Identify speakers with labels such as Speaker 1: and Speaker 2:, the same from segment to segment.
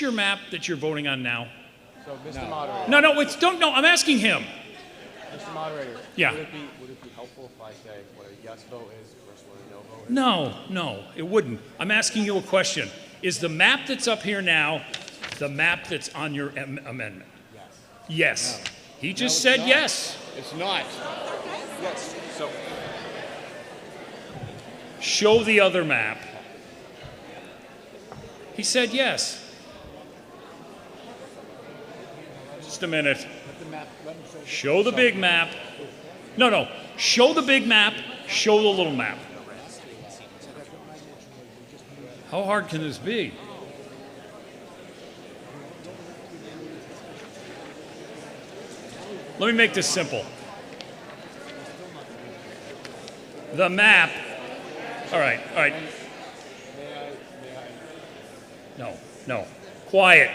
Speaker 1: your map that you're voting on now?
Speaker 2: So, Mr. Moderator,
Speaker 1: No, no, it's, don't, no, I'm asking him.
Speaker 2: Mr. Moderator.
Speaker 1: Yeah.
Speaker 2: Would it be, would it be helpful if I say what a yes vote is versus what a no vote is?
Speaker 1: No, no, it wouldn't. I'm asking you a question. Is the map that's up here now the map that's on your am- amendment? Yes. Yes. He just said yes.
Speaker 3: It's not.
Speaker 2: Yes, so,
Speaker 1: Show the other map. He said yes. Just a minute. Show the big map. No, no. Show the big map. Show the little map. How hard can this be? Let me make this simple. The map all right, all right. No, no. Quiet.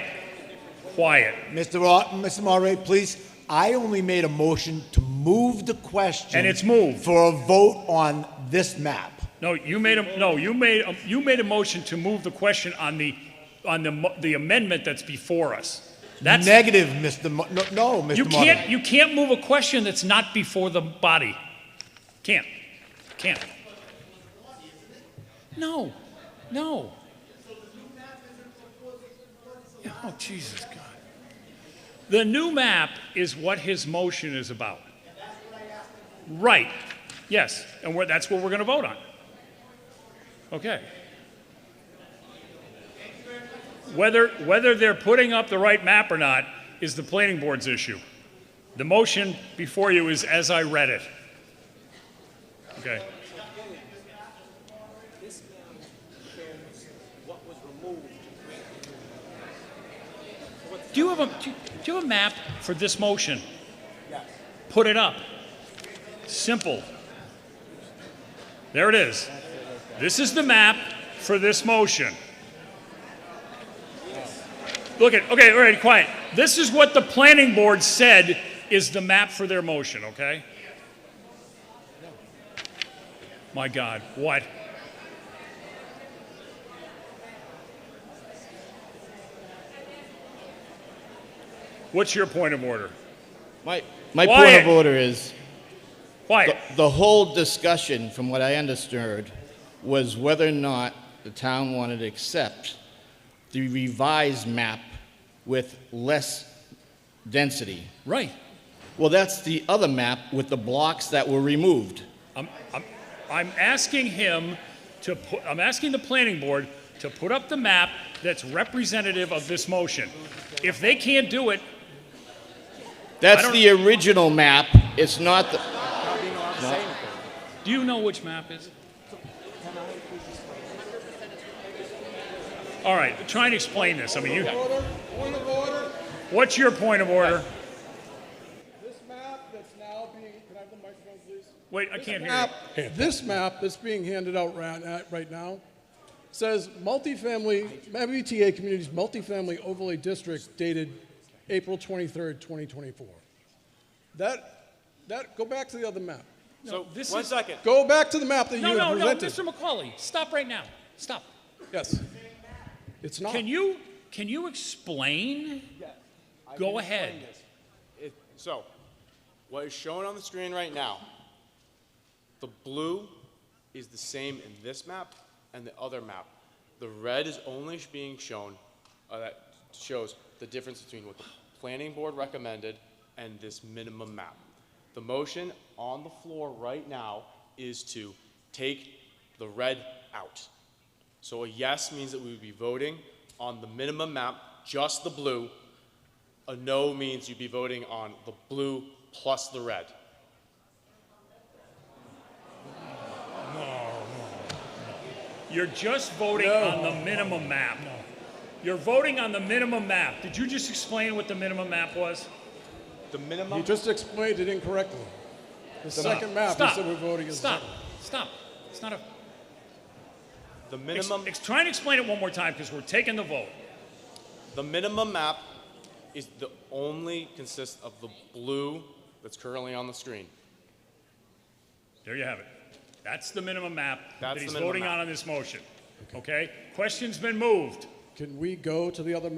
Speaker 1: Quiet.
Speaker 4: Mr. Ra- Mr. Moderator, please, I only made a motion to move the question.
Speaker 1: And it's moved.
Speaker 4: For a vote on this map.
Speaker 1: No, you made a, no, you made, a, you made a motion to move the question on the, on the, mo- the amendment that's before us. That's,
Speaker 4: Negative, Mr. Mo- no, no, Mr.
Speaker 1: you
Speaker 4: Moderator.
Speaker 1: can't, you can't move a question that's not before the body. Can't. Can't. No, no. Oh, Jesus God. The new map is what his motion is about. Right. Yes, and we're, that's what we're going to vote on. Okay. Whether, whether they're putting up the right map or not is the planning board's issue. The motion before you is as I read it. Okay. Do you have a, do you- do you have a map for this motion? Put it up. Simple. There it is. This is the map for this motion. Look at, okay, all right, quiet. This is what the planning board said is the map for their motion, okay? My God, what? What's your point of order?
Speaker 3: My, my point
Speaker 1: Quiet.
Speaker 3: of order is
Speaker 1: Quiet.
Speaker 3: the, the whole discussion, from what I understood, was whether or not the town wanted to accept the revised map with less density.
Speaker 1: Right.
Speaker 3: Well, that's the other map with the blocks that were removed.
Speaker 1: I'm, I'm, I'm asking him to put, I'm asking the planning board to put up the map that's representative of this motion. If they can't do it,
Speaker 3: That's
Speaker 1: don't-
Speaker 3: the original map. It's not the.
Speaker 1: do you know which map is? it? All right, try and explain this. I mean, you,
Speaker 5: Order, point of order,
Speaker 1: what's your point of order?
Speaker 5: this map that's now being, can I have the microphone, please?
Speaker 1: Wait, I can't hear
Speaker 5: Map-
Speaker 1: you.
Speaker 5: This map that's being handed out right, uh, right now says multifamily, MBTA Communities Multifamily Overlay District dated April 23rd, 2024. That, that, go back to the other map.
Speaker 1: No, this
Speaker 2: one
Speaker 1: is-
Speaker 2: second.
Speaker 5: Go back to the map that you
Speaker 1: No, no,
Speaker 5: had
Speaker 1: no,
Speaker 5: presented.
Speaker 1: Mr. McCauley, stop right now. Stop.
Speaker 5: Yes. It's not.
Speaker 1: Can you, can you explain?
Speaker 2: I
Speaker 1: Go
Speaker 2: can
Speaker 1: ahead.
Speaker 2: explain this. It- So, what is shown on the screen right now, the blue is the same in this map and the other map. The red is only sh- being shown, uh, that shows the difference between what the planning board recommended and this minimum map. The motion on the floor right now is to take the red out. So a yes means that we would be voting on the minimum map, just the blue, a no means you'd be voting on the blue plus the red.
Speaker 1: You're just voting on the minimum map. You're voting on the minimum map. Did you just explain what the minimum map was?
Speaker 2: The
Speaker 5: You
Speaker 2: minimum,
Speaker 5: just explained it incorrectly. The second map is
Speaker 1: Stop.
Speaker 5: that we're voting is.
Speaker 1: Stop. Stop. It's not a.
Speaker 2: the
Speaker 1: Ex-
Speaker 2: minimum,
Speaker 1: ex- try and explain it one more time because we're taking the vote.
Speaker 2: the minimum map is the only consists of the blue that's currently on the screen.
Speaker 1: There you have it. That's the minimum map
Speaker 2: That's
Speaker 1: that
Speaker 2: the
Speaker 1: he's
Speaker 2: minimum
Speaker 1: voting
Speaker 2: map.
Speaker 1: on on this motion. Okay? Question's been moved.
Speaker 5: Can we go to the other map